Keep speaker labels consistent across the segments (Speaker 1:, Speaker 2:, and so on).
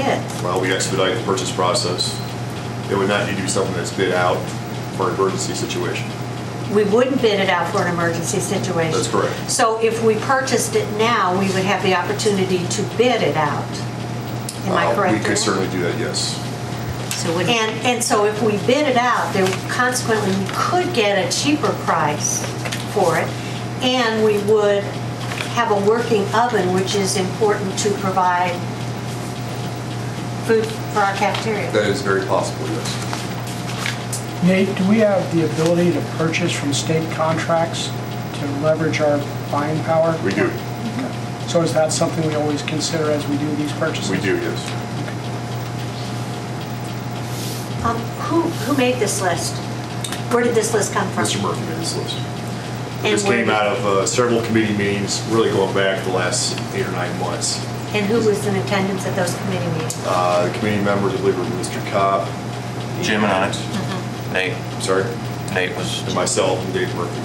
Speaker 1: kids.
Speaker 2: Well, we expedite the purchase process. It would not need to be something that's bid out for an emergency situation.
Speaker 1: We wouldn't bid it out for an emergency situation.
Speaker 2: That's correct.
Speaker 1: So if we purchased it now, we would have the opportunity to bid it out. Am I
Speaker 2: Uh,
Speaker 1: correct?
Speaker 2: We
Speaker 1: in that?
Speaker 2: could certainly do that, yes.
Speaker 3: So would,
Speaker 1: And, and so if we bid it out, then consequently, we could get a cheaper price for it, and we would have a working oven, which is important to provide food for our cafeteria.
Speaker 2: That is very possible, yes.
Speaker 4: Nate, do we have the ability to purchase from state contracts to leverage our buying power?
Speaker 2: We do,
Speaker 4: So is that something we always consider as we do these purchases?
Speaker 2: we do, yes.
Speaker 1: Um, Who, who made this list? Where did this list come from?
Speaker 2: Mr. Murphy made this list.
Speaker 1: And
Speaker 2: This
Speaker 1: where
Speaker 2: came
Speaker 1: did-
Speaker 2: out of uh, several committee meetings, really going back the last eight or nine months.
Speaker 1: And who was in attendance at those committee meetings?
Speaker 2: Uh, The committee members, I believe, were Mr. Cobb.
Speaker 5: Jim and I, Nate,
Speaker 2: Sorry?
Speaker 5: Nate was,
Speaker 2: And myself and Dave Murphy.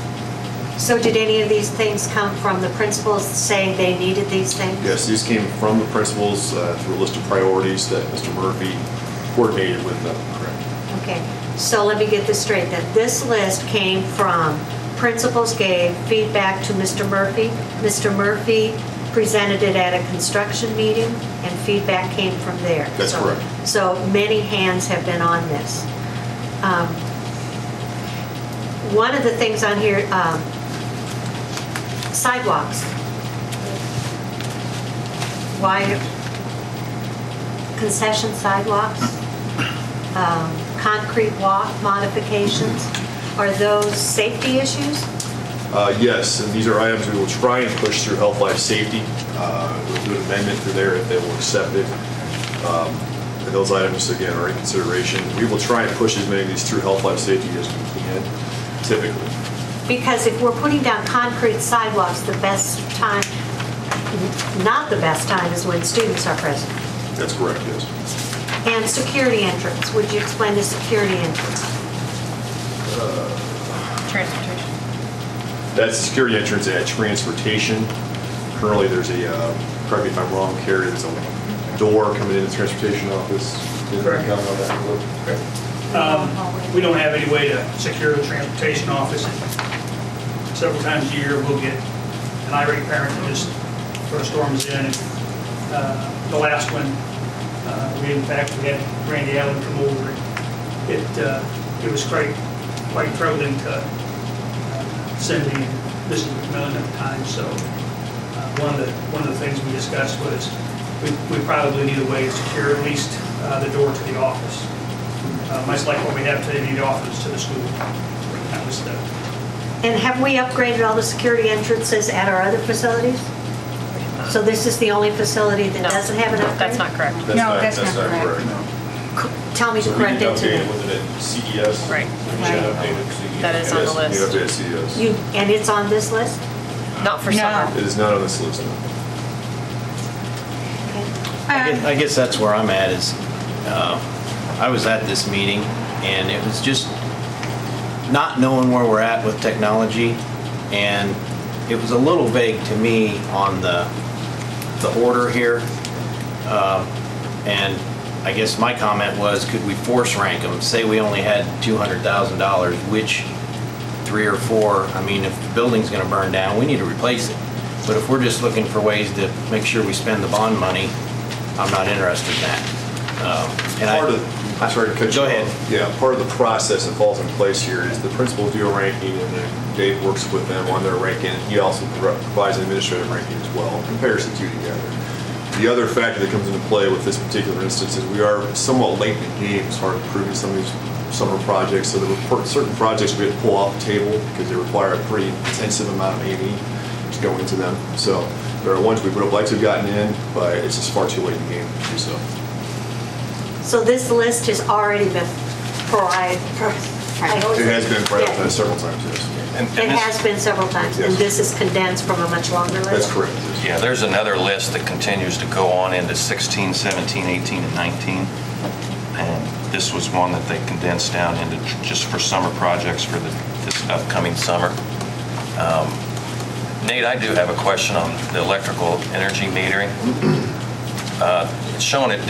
Speaker 1: So did any of these things come from the principals saying they needed these things?
Speaker 2: Yes, these came from the principals uh, through a list of priorities that Mr. Murphy coordinated with them. Correct.
Speaker 1: Okay, so let me get this straight, that this list came from principals gave feedback to Mr. Murphy. Mr. Murphy presented it at a construction meeting, and feedback came from there.
Speaker 2: That's
Speaker 1: So-
Speaker 2: correct.
Speaker 1: So many hands have been on this. Um, One of the things on here, um, sidewalks. Why, concession sidewalks? um, concrete walk modifications, are those safety issues?
Speaker 2: Uh, Yes, and these are items we will try and push through health, life, safety. Uh, We'll do an amendment to there if they will accept it. Um, and Those items, again, are in consideration. We will try and push as many of these through health, life, safety as we can typically.
Speaker 1: Because if we're putting down concrete sidewalks, the best time, not the best time is when students are present.
Speaker 2: That's correct, yes.
Speaker 1: And security entrance, would you explain the security entrance?
Speaker 3: transportation.
Speaker 2: That's the security entrance at transportation. Currently, there's a, uh, correct me if I'm wrong, Carrie, there's a door coming into the transportation office. Is there a comment on that?
Speaker 6: Um, We don't have any way to secure the transportation office. Several times a year, we'll get an irate parent that just sort of storms in. And, uh, The last one, uh, we in fact, we had Randy Allen come over. It, uh, it was quite, quite troubling to uh, Cindy and Mrs. McMillan at the time, so uh, one of the, one of the things we discussed was we we probably need a way to secure at least uh, the door to the office uh, much like what we have today in the office to the school. That was the,
Speaker 1: And have we upgraded all the security entrances at our other facilities? So this is the only facility that doesn't have an upgrade?
Speaker 3: That's not correct.
Speaker 2: That's
Speaker 7: No, that's not correct.
Speaker 1: Tell me the
Speaker 2: So we need
Speaker 1: correct
Speaker 2: to update it
Speaker 1: answer.
Speaker 2: with it at CES.
Speaker 3: Right.
Speaker 2: We should update it at CES.
Speaker 3: That is on the
Speaker 2: Yes,
Speaker 3: list.
Speaker 2: You have to at CES.
Speaker 1: You, and it's on this list?
Speaker 3: Not for
Speaker 7: No.
Speaker 3: summer.
Speaker 2: It is not on this list.
Speaker 8: I guess-
Speaker 7: Um,
Speaker 8: I guess that's where I'm at is, uh, I was at this meeting and it was just not knowing where we're at with technology. And it was a little vague to me on the, the order here. Uh, And I guess my comment was, could we force rank them? Say we only had $200,000, which three or four, I mean, if the building's gonna burn down, we need to replace it. But if we're just looking for ways to make sure we spend the bond money, I'm not interested in that. Um, and I-
Speaker 2: Part of, I'm sorry to cut you
Speaker 8: Go
Speaker 2: off.
Speaker 8: ahead.
Speaker 2: Yeah, part of the process that falls in place here is the principals do a ranking, and then Dave works with them on their ranking. He also pro- provides an administrative ranking as well, compares the two together. The other factor that comes into play with this particular instance is we are somewhat late in the game as far as approving some of these summer projects. So there were per- certain projects we had to pull off the table because they require a pretty intensive amount of A&E to go into them. So there are ones we would have liked to have gotten in, but it's just far too late in the game to do so.
Speaker 1: So this list has already been provided.
Speaker 2: It has been prioritized
Speaker 1: It
Speaker 2: several times, yes.
Speaker 5: and and
Speaker 1: has
Speaker 5: this,
Speaker 1: been several times, and
Speaker 2: Yes.
Speaker 1: this is condensed from a much longer list?
Speaker 2: That's correct.
Speaker 5: yeah, there's another list that continues to go on into 16, 17, 18, and 19. And this was one that they condensed down into tr- just for summer projects for the- this upcoming summer. Um, Nate, I do have a question on the electrical energy metering. Uh, It's shown at